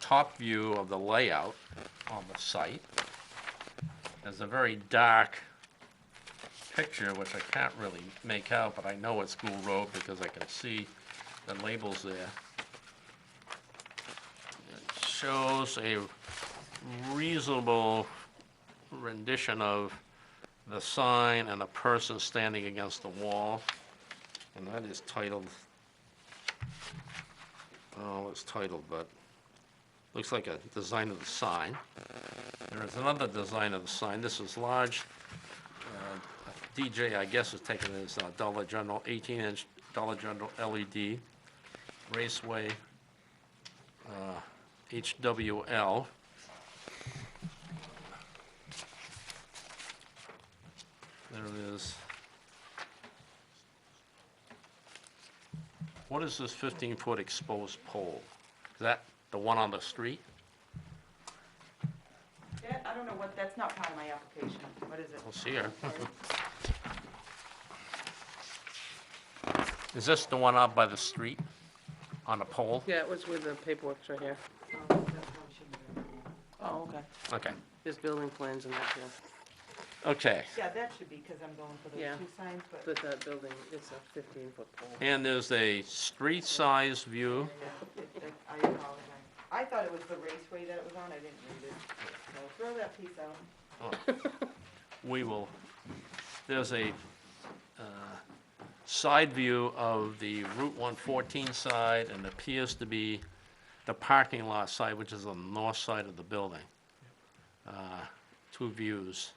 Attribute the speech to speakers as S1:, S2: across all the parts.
S1: top view of the layout on the site. There's a very dark picture, which I can't really make out, but I know it's School Road because I can see the labels there. It shows a reasonable rendition of the sign and a person standing against the wall, and that is titled, oh, it's titled, but looks like a design of the sign. There is another design of the sign. This is large. uh, DJ, I guess, is taking this uh, Dollar General, 18-inch Dollar General LED Raceway uh, HWL. There it is. What is this 15-foot exposed pole? Is that the one on the street?
S2: That, I don't know what, that's not part of my application. What is it? Oh,
S1: Let's see here. Is this the one out by the street on a pole?
S3: Yeah, it was with the paperwork right here.
S2: Oh, that's probably shouldn't be.
S3: Oh, okay.
S1: Okay,
S3: There's building plans in that too.
S1: okay.
S2: Yeah, that should be, because I'm going for
S3: Yeah.
S2: those two signs, but,
S3: But that building, it's a fifteen foot pole.
S1: And there's a street size view.
S2: yeah, it- it- I apologize. I thought it was the raceway that it was on, I didn't read it. So throw that piece out.
S1: We will, there's a uh, side view of the Route 114 side and appears to be the parking lot side, which is on the north side of the building. Uh, Two views.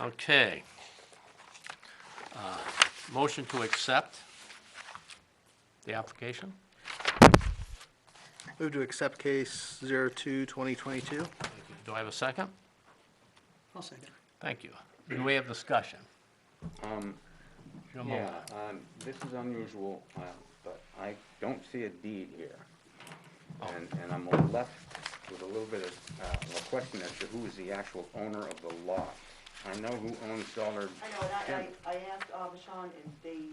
S1: Okay. Uh, Motion to accept the application?
S4: Move to accept case 02, 2022.
S1: Do I have a second?
S3: I'll second.
S1: Thank you. Do we have discussion?
S5: Um,
S1: Your
S5: yeah,
S1: moment.
S5: um, this is unusual, uh, but I don't see a deed here. And, and I'm left with a little bit of, uh, a question as to who is the actual owner of the lot. I know who owns Dollar
S2: I know, and
S5: General.
S2: I, I, I asked, um, Sean, and they,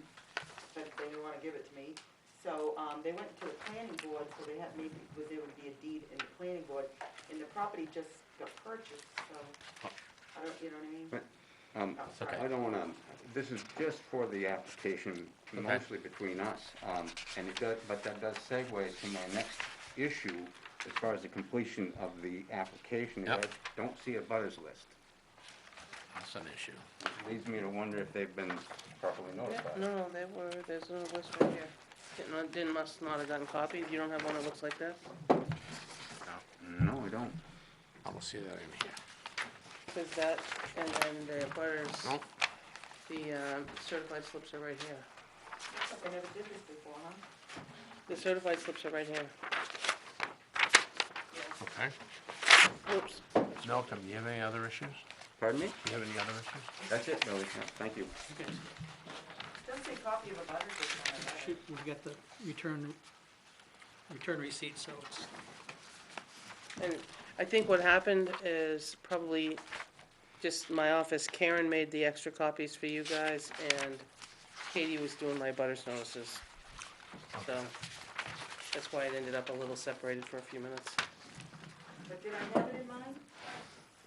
S2: said they didn't wanna give it to me. So, um, they went to the planning board, so they had, maybe, was there would be a deed in the planning board, and the property just got purchased, so, I don't, you know what I mean?
S5: But, Um,
S2: Oh, sorry.
S5: I don't wanna, this is just for the application, mostly between us. Um, and it does, but that does segue to my next issue as far as the completion of the application. is
S1: Yep.
S5: I Don't see a butters list.
S1: That's an issue.
S5: Leads me to wonder if they've been properly
S3: Yeah,
S5: notified.
S3: no, no, there were, there's a little list right here. Didn't, I- didn't, must not have gotten copied. You don't have one that looks like that?
S5: No, I don't.
S1: I don't see that in here.
S3: There's that, and then the butters,
S1: Nope.
S3: the um, certified slips are right here.
S2: They never did this before, huh?
S3: The certified slips are right here.
S1: Okay.
S3: Oops.
S1: Malcolm, do you have any other issues?
S5: Pardon me?
S1: Do you have any other issues?
S5: That's it, Billy. Yeah, Thank you.
S2: Doesn't say copy of a butter just on it.
S6: Shoot, we've got the return, return receipt, so it's,
S3: And I think what happened is probably just my office, Karen made the extra copies for you guys, and Katie was doing my butters notices. So, that's why it ended up a little separated for a few minutes.
S2: But did I have it in mind?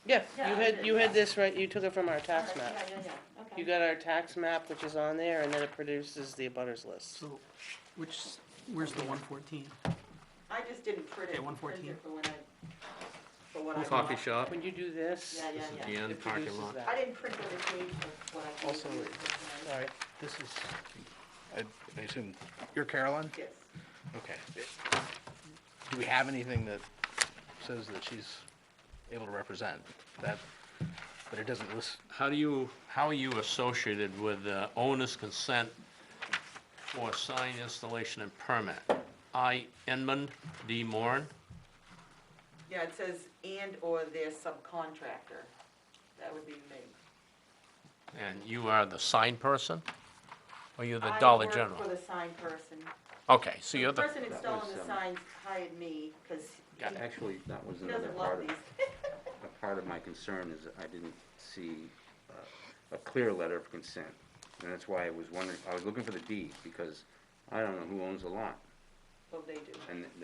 S3: Yeah,
S2: Yeah,
S3: you
S2: I
S3: had,
S2: did,
S3: you
S2: yeah.
S3: had this, right, you took it from our tax
S2: Alright,
S3: map.
S2: Yeah, yeah, yeah, okay.
S3: You got our tax map, which is on there, and then it produces the abutters list.
S6: so, which, where's the one fourteen?
S2: I just didn't print it.
S6: Okay, 114.
S2: print it For when I, for what I.
S1: Coffee
S2: bought.
S1: shop,
S3: When you do this,
S2: Yeah,
S1: this is
S2: yeah,
S1: the
S2: yeah.
S1: end
S3: it
S1: parking
S3: produces
S1: lot.
S2: I
S3: that.
S2: didn't print the page of what I gave
S3: Also,
S2: you.
S3: Sorry,
S4: This is, I I assume, you're Carolyn?
S2: Yes.
S4: Okay. Do we have anything that says that she's able to represent that, but it doesn't list?
S1: How do you, how are you associated with uh, owner's consent for sign installation and permit? I, Enman D. Moran,
S2: Yeah, it says and/or their subcontractor. That would be me.
S1: and you are the sign person? Or you're the
S2: I
S1: Dollar
S2: work
S1: General?
S2: For the sign person.
S1: Okay, so you're
S2: The
S1: the,
S2: person
S5: That
S2: installing
S5: was,
S2: the
S5: um,
S2: signs hired me because
S1: Got it.
S2: he
S5: Actually, that was
S2: he
S5: another
S2: doesn't love
S5: part of,
S2: these.
S5: a part of my concern is that I didn't see uh, a clear letter of consent. And that's why I was wondering, I was looking for the deed because I don't know who owns the lot.
S2: Well, they do.
S5: And